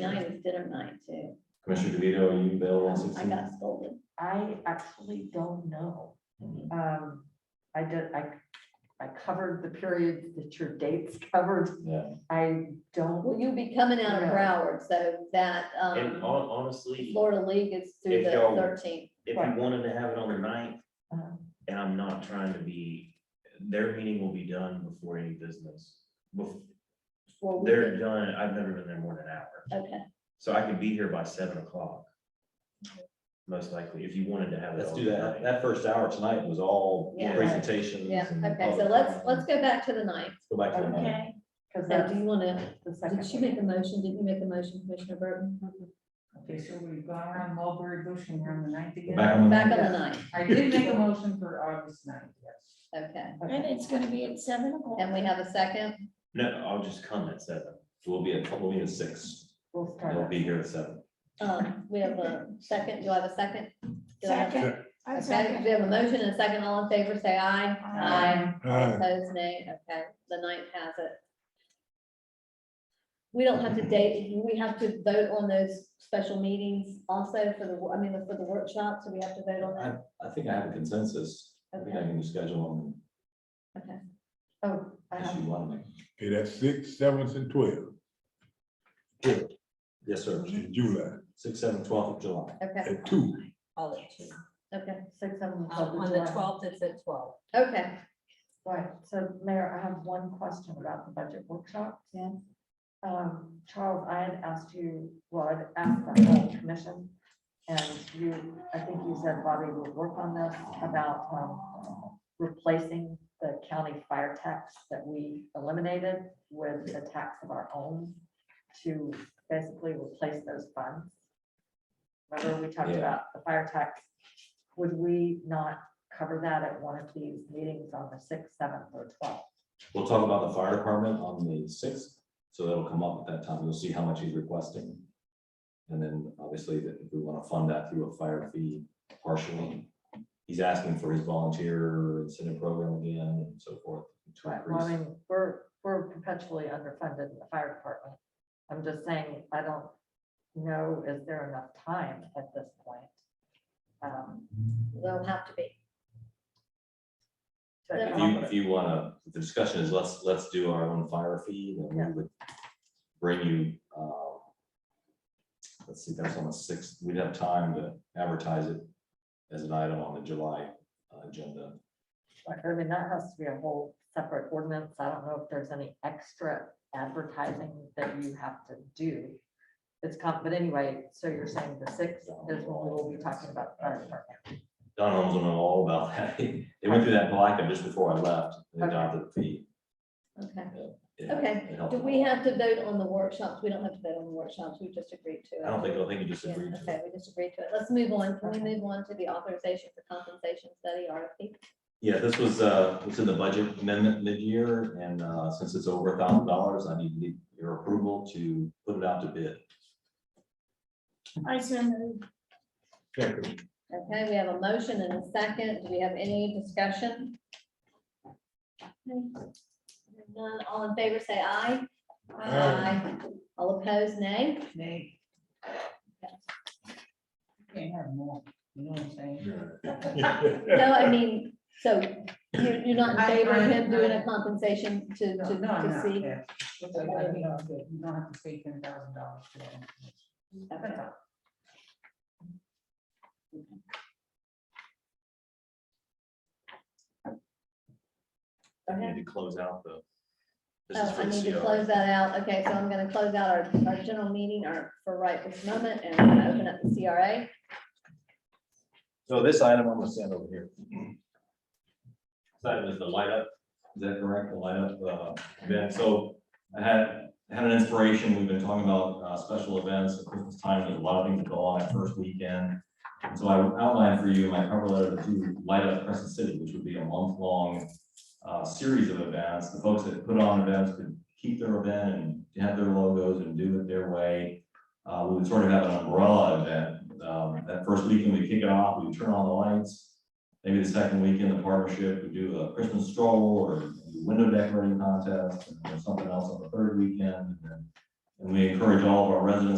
Night was dinner night too. Um, Commissioner DeVito, are you available on I sixteen? got scolded. I actually don't know. Um, I did, I, I covered the periods that your dates covered. Yeah, I don't, Well, you'll be coming out of Yeah. Broward, so that, And um, hon- honestly, Florida League is through If the y'all- thirteenth. if you wanted to have it on the ninth, uh, and I'm not trying to be, their meeting will be done before any business. Bef- They're done, I've never been there more than an hour, Okay, so I could be here by seven o'clock. Most likely, if you wanted to have it. let's on do the that. ninth. That first hour tonight was all Yeah. presentations. yeah, and okay, so public let's, comment. let's go back to the ninth. Go back to the night. Okay. So because that's do you wanna, the did she second. make a motion? Didn't you make a motion, Commissioner Burton? Okay, so we've gone around Mulberry Bush and we're on the ninth Go again. back on the- Back on the ninth, I did make a motion for August ninth, yes. okay. And Okay. it's gonna be at seven o'clock. And we have a second? No, I'll just come at seven. So we'll be at, we'll be at six. We'll start. They'll be here at seven. Um, we have a second, do I have a second? Do I have- Second. I Okay, second. we have a motion and a second, all in favor, say aye. Um, Aye. Opposed, nay, okay, the ninth has it. We don't have to date, we have to vote on those special meetings also for the, I mean, for the workshop, so we have to vote on I, that. I think I have a consensus. I think I can just Oh, schedule I them if have- you Uh-huh. want me. Okay, that's six, seventh, and twelve Yes, sir. in July, Six, seven, twelfth of July. Okay, at two. All at two. okay, six, seven, Um, twelve, On the July. twelfth, it's at twelve. okay, Right, so Mayor, I have one question about the budget workshop. Yeah. Um, Charles, I had asked you, well, I'd asked the whole commission, and you, I think you said Bobby would work on this about, um, replacing the county fire tax that we eliminated with a tax of our own to basically replace those funds. Remember, we talked Yeah. about the fire tax. Would we not cover that at one of these meetings on the sixth, seventh, or twelfth. We'll talk about the fire department on the sixth, so that'll come up at that time. You'll see how much he's requesting. And then obviously that if we want to fund that through a fire fee partially. He's asking for his volunteer incentive program again and so forth. to Well, I increase. mean, we're, we're perpetually underfunded in the fire department. I'm just saying, I don't know, is there enough time at this point? um, will have to be. to If If you, accomplish- if you wanna, if the discussion is let's, let's do our own fire fee, then we would bring you, uh, let's see, that's on the sixth, we'd have time to advertise it as an item on the July uh, agenda. like, I mean, that has to be a whole separate ordinance. I don't know if there's any extra advertising that you have to do. It's, com- but anyway, so you're saying the sixth is when we'll be talking about the fire department. Don Holmes will know all about that. They went through that blackout just before I left. They adopted the fee. Okay, It helped- Okay. it helped do a we lot. have to vote on the workshops? We don't have to vote on the workshops, we just agreed to it. I don't think, I think you just Yeah, agreed to Okay, it. we just agreed to it. Let's move on. Can we Okay. move on to the authorization for compensation study, RFP? Yeah, this was, uh, it's in the budget amendment mid-year, and, uh, since it's over a thousand dollars, I need- need your approval to put it out to bid. I so moved. Second, Okay, we have a motion and a second. Do we have any discussion? Okay. None, all in favor, say aye. Aye. All opposed, nay. Nay. Can't have more, you know what I'm saying? No, yeah. I mean, so you're, you're not in I- favor of I- him doing I- a compensation to, No, to, no, I'm to not, see? yeah. It's like, I mean, I'll say, You don't have to pay ten thousand dollars for it. Okay. That's all. We Okay. Need to close out the. this is Oh, for I the need to CR. close that out. Okay, so I'm gonna close out our, our general meeting, our, for right this moment, and I'm gonna open up the CRA. So this item, I'm gonna stand over here. This item is the light up, is that correct, the light up, uh, event, so I had, had an inspiration, we've been talking about, uh, special events, at Christmas time, there's a lot of things that go on that first weekend. And So I outlined for you my cover letter to Light Up Crescent City, which would be a month-long, uh, series of events, the folks that put on events could keep their event and have their logos and do it their way. Uh, we would sort of have an umbrella event. Um, that first weekend, we kick it off, we turn on the lights. Maybe the second weekend, the partnership, we do a Christmas stroll or window decorating contest or something else on the third weekend. And then- and we encourage all of our residents